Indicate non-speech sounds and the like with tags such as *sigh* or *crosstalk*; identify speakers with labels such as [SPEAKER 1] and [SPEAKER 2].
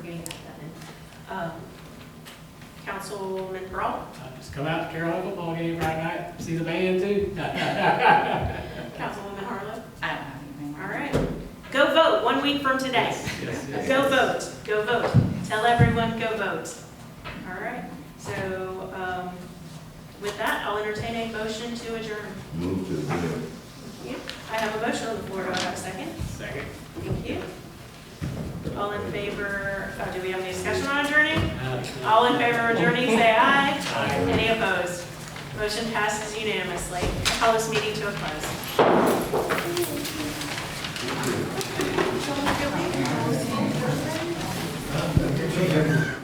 [SPEAKER 1] Um, Councilman Braun,
[SPEAKER 2] I just come out to Carolina football game Friday night, see the band too. *laughs*
[SPEAKER 1] Councilwoman Harlow.
[SPEAKER 3] I don't have anything.
[SPEAKER 1] All right. Go vote one week from today.
[SPEAKER 2] Yes, yes.
[SPEAKER 1] Go vote, go vote. Tell everyone, go vote. All right. So um, with that, I'll entertain a motion to adjourn.
[SPEAKER 4] Move to adjourn.
[SPEAKER 1] Yep. I have a motion on the floor. Do I have a second?
[SPEAKER 2] Second.
[SPEAKER 1] Thank you. All in favor, uh, do we have any discussion on adjourning?
[SPEAKER 2] Uh,
[SPEAKER 1] All in favor of adjourning, say aye.
[SPEAKER 2] Aye.
[SPEAKER 1] Any opposed? Motion passes unanimously. I Call this meeting to a close.